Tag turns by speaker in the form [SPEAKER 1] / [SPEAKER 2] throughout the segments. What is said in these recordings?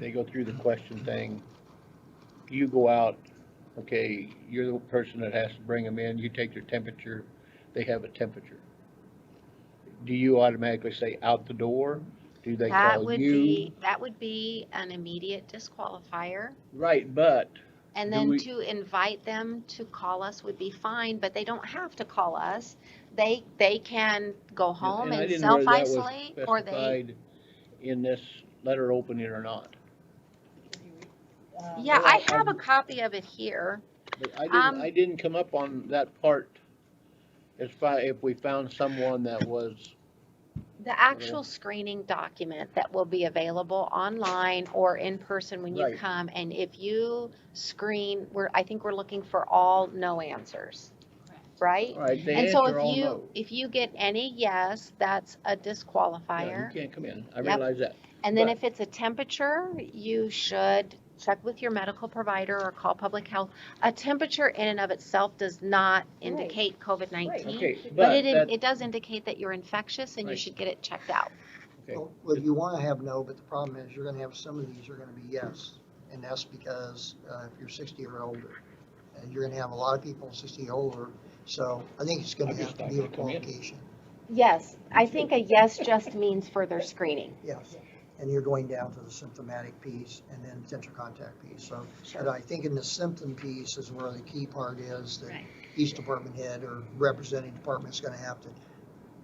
[SPEAKER 1] they go through the question thing. You go out, okay, you're the person that has to bring them in, you take their temperature, they have a temperature. Do you automatically say out the door? Do they
[SPEAKER 2] That
[SPEAKER 1] call
[SPEAKER 2] would
[SPEAKER 1] you?
[SPEAKER 2] be, that would be an immediate disqualifier.
[SPEAKER 1] Right, but
[SPEAKER 2] And
[SPEAKER 1] Do
[SPEAKER 2] then
[SPEAKER 1] we-
[SPEAKER 2] to invite them to call us would be fine, but they don't have to call us. They, they can go home
[SPEAKER 1] I
[SPEAKER 2] and
[SPEAKER 1] didn't know whether that was
[SPEAKER 2] self-isolate or they,
[SPEAKER 1] specified in this letter opening or not.
[SPEAKER 2] yeah, I
[SPEAKER 1] Well,
[SPEAKER 2] have a
[SPEAKER 1] um,
[SPEAKER 2] copy of it here.
[SPEAKER 1] But I
[SPEAKER 2] Um,
[SPEAKER 1] didn't, I didn't come up on that part. If I, if we found someone that was,
[SPEAKER 2] The actual screening document that will be available online or in person when you
[SPEAKER 1] Right.
[SPEAKER 2] come. And if you screen, we're, I think we're looking for all no answers, right?
[SPEAKER 1] all right, they
[SPEAKER 2] And so
[SPEAKER 1] answer
[SPEAKER 2] if
[SPEAKER 1] all
[SPEAKER 2] you,
[SPEAKER 1] no.
[SPEAKER 2] if you get any yes, that's a
[SPEAKER 1] Yeah,
[SPEAKER 2] disqualifier.
[SPEAKER 1] You can't come in, I
[SPEAKER 2] Yep.
[SPEAKER 1] realize that.
[SPEAKER 2] And then
[SPEAKER 1] But-
[SPEAKER 2] if it's a temperature, you should check with your medical provider or call public health. A temperature in and of itself does not indicate COVID-19.
[SPEAKER 1] Okay,
[SPEAKER 2] But
[SPEAKER 1] but
[SPEAKER 2] it, in-
[SPEAKER 1] that,
[SPEAKER 2] it does indicate that you're infectious and you
[SPEAKER 1] Right.
[SPEAKER 2] should get it checked out.
[SPEAKER 1] Okay.
[SPEAKER 3] Well, well, you wanna have no, but the problem is you're gonna have some of these are gonna be yes. And that's because, uh, if you're sixty or older, and you're gonna have a lot of people sixty or older, so I think it's gonna
[SPEAKER 1] I'm
[SPEAKER 3] have
[SPEAKER 1] just
[SPEAKER 3] to
[SPEAKER 1] not
[SPEAKER 3] be a
[SPEAKER 1] gonna come in.
[SPEAKER 3] qualification,
[SPEAKER 2] Yes, I think a yes just means further screening.
[SPEAKER 3] yes. And you're going down to the symptomatic piece and then potential contact piece, so. But I think in the symptom piece is where the key part is that
[SPEAKER 2] Right.
[SPEAKER 3] each department head or representing department's gonna have to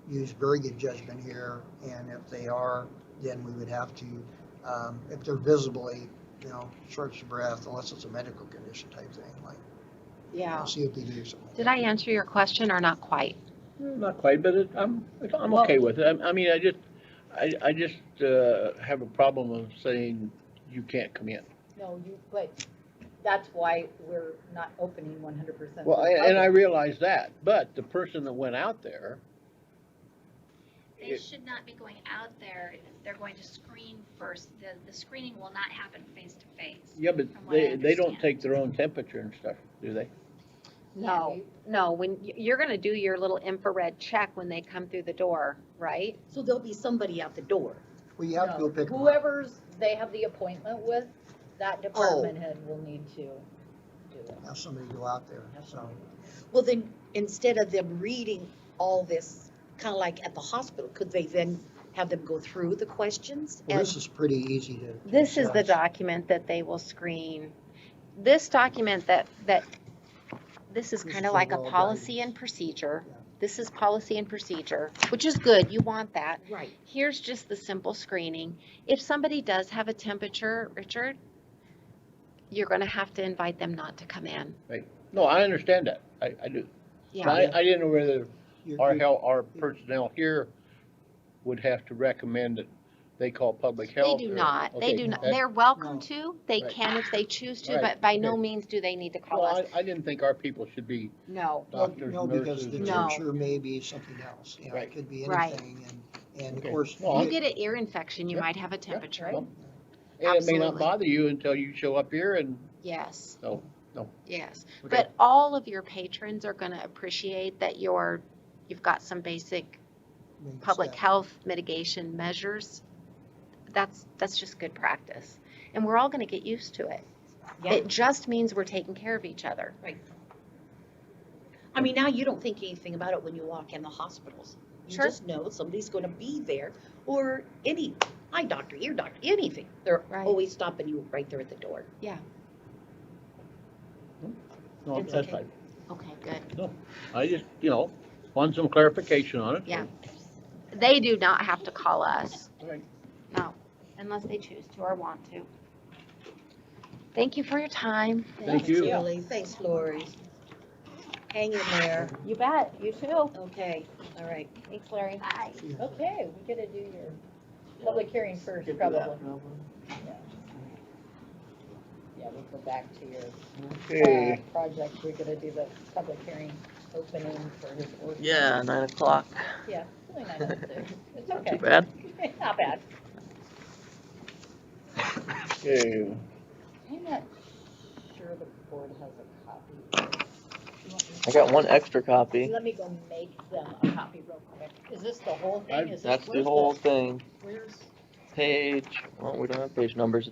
[SPEAKER 3] use very good judgment here, and if they are, then we would have to, um, if they're visibly, you know, short of breath, unless it's a medical condition type thing, like, you know,
[SPEAKER 2] Yeah.
[SPEAKER 3] COPD or something.
[SPEAKER 2] Did I answer your question or not quite?
[SPEAKER 1] not quite, but it- I'm, I'm
[SPEAKER 2] Well-
[SPEAKER 1] okay with it. I, I mean, I just, I, I just, uh, have a problem of saying you can't come in.
[SPEAKER 4] No, you, but that's why we're not opening one hundred percent.
[SPEAKER 1] Well, I- and I realize that, but the person that went out there,
[SPEAKER 5] They
[SPEAKER 1] It-
[SPEAKER 5] should not be going out there, they're going to screen first, the, the screening will not happen face to face.
[SPEAKER 1] yeah, but
[SPEAKER 5] From what I
[SPEAKER 1] they, they don't
[SPEAKER 5] understand.
[SPEAKER 1] take their own temperature and stuff, do they?
[SPEAKER 2] No, no, when, y- you're gonna do your little infrared check when they come through the door, right?
[SPEAKER 6] So there'll be somebody out the door.
[SPEAKER 3] Well, you have to go pick them up. Oh.
[SPEAKER 4] Whoever's, they have the appointment with, that department head will need to do it.
[SPEAKER 3] Have somebody go out there,
[SPEAKER 4] Have
[SPEAKER 3] so,
[SPEAKER 4] somebody.
[SPEAKER 6] Well, then, instead of them reading all this, kind of like at the hospital, could they then have them go through the questions?
[SPEAKER 3] well,
[SPEAKER 6] and-
[SPEAKER 3] this is pretty easy to. to
[SPEAKER 2] This is the
[SPEAKER 3] assess.
[SPEAKER 2] document that they will screen. This document that, that, this is
[SPEAKER 3] This
[SPEAKER 2] kind
[SPEAKER 3] is
[SPEAKER 2] of like a
[SPEAKER 3] overall
[SPEAKER 2] policy
[SPEAKER 3] guidance.
[SPEAKER 2] and procedure.
[SPEAKER 3] Yeah.
[SPEAKER 2] This is policy and procedure, which is good, you want that.
[SPEAKER 6] Right.
[SPEAKER 2] Here's just the simple screening. If somebody does have a temperature, Richard, you're gonna have to invite them not to come in.
[SPEAKER 1] No, I understand that, I, I do. But
[SPEAKER 2] Yeah,
[SPEAKER 1] I, I didn't know whether
[SPEAKER 3] You're-
[SPEAKER 1] our
[SPEAKER 3] you're-
[SPEAKER 1] hel, our personnel here would have to recommend that they call public
[SPEAKER 2] they
[SPEAKER 1] health.
[SPEAKER 2] do
[SPEAKER 1] or-
[SPEAKER 2] not, they
[SPEAKER 1] okay,
[SPEAKER 2] do not,
[SPEAKER 1] that-
[SPEAKER 2] they're welcome
[SPEAKER 3] No.
[SPEAKER 2] to, they
[SPEAKER 1] Right.
[SPEAKER 2] can if they choose to,
[SPEAKER 1] Right,
[SPEAKER 2] but by no
[SPEAKER 1] okay.
[SPEAKER 2] means do they need to call
[SPEAKER 1] Well,
[SPEAKER 2] us.
[SPEAKER 1] I, I didn't think our people should be
[SPEAKER 2] No,
[SPEAKER 3] Well,
[SPEAKER 1] doctors,
[SPEAKER 3] No, because the
[SPEAKER 1] nurses.
[SPEAKER 2] No.
[SPEAKER 3] temperature may be something else, you know,
[SPEAKER 1] Right.
[SPEAKER 3] it could be
[SPEAKER 2] Right.
[SPEAKER 3] anything, and, and of
[SPEAKER 1] Okay.
[SPEAKER 3] course.
[SPEAKER 1] Well,
[SPEAKER 2] you
[SPEAKER 1] I-
[SPEAKER 2] get an ear infection, you
[SPEAKER 1] Yep,
[SPEAKER 2] might have a temperature.
[SPEAKER 4] right.
[SPEAKER 1] And it may not
[SPEAKER 2] Absolutely.
[SPEAKER 1] bother you until you show up here and,
[SPEAKER 2] Yes,
[SPEAKER 1] no, no.
[SPEAKER 2] yes.
[SPEAKER 1] okay.
[SPEAKER 2] But all of your patrons are gonna appreciate that you're, you've got some basic
[SPEAKER 3] maybe it's
[SPEAKER 2] public
[SPEAKER 3] that.
[SPEAKER 2] health mitigation measures. That's, that's just good practice. And we're all gonna get used to it.
[SPEAKER 6] Yeah,
[SPEAKER 2] It just means we're taking care of each other.
[SPEAKER 6] I mean, now you don't think anything about it when you walk in the hospitals. You
[SPEAKER 2] Sure.
[SPEAKER 6] just know somebody's gonna be there, or any eye doctor, ear doctor, anything. They're
[SPEAKER 2] Right.
[SPEAKER 6] always stopping you right there at the door.
[SPEAKER 1] No, I'm
[SPEAKER 6] It's
[SPEAKER 1] satisfied.
[SPEAKER 2] Okay, good.
[SPEAKER 1] I just, you know, want some clarification on it.
[SPEAKER 2] Yeah. They do not have to call us.
[SPEAKER 1] Right.
[SPEAKER 2] No, unless they choose to or want to. Thank you for your time.
[SPEAKER 1] Thank you.
[SPEAKER 6] Julie, thanks Lori. Hang in there.
[SPEAKER 2] You bet, you too.
[SPEAKER 6] Okay, all right.
[SPEAKER 2] Thanks, Larry. Bye.
[SPEAKER 4] Okay, we gotta do your public hearing first, probably. Yeah, we'll go back to your, uh,
[SPEAKER 1] Okay,
[SPEAKER 4] project, we're gonna do the public hearing opening for his ordinance.
[SPEAKER 7] Yeah, nine o'clock.
[SPEAKER 4] Yeah, it's only nine oh six, it's
[SPEAKER 7] Too
[SPEAKER 4] okay,
[SPEAKER 7] bad.
[SPEAKER 4] not bad.
[SPEAKER 1] okay.
[SPEAKER 4] I'm not sure the board has a copy. of this.
[SPEAKER 7] I got one extra copy.
[SPEAKER 4] Let me go make them a copy real quick. Is this the whole thing? Is this-
[SPEAKER 7] That's the
[SPEAKER 4] where's
[SPEAKER 7] whole thing.
[SPEAKER 4] Where's?
[SPEAKER 7] Page, well, we don't have page numbers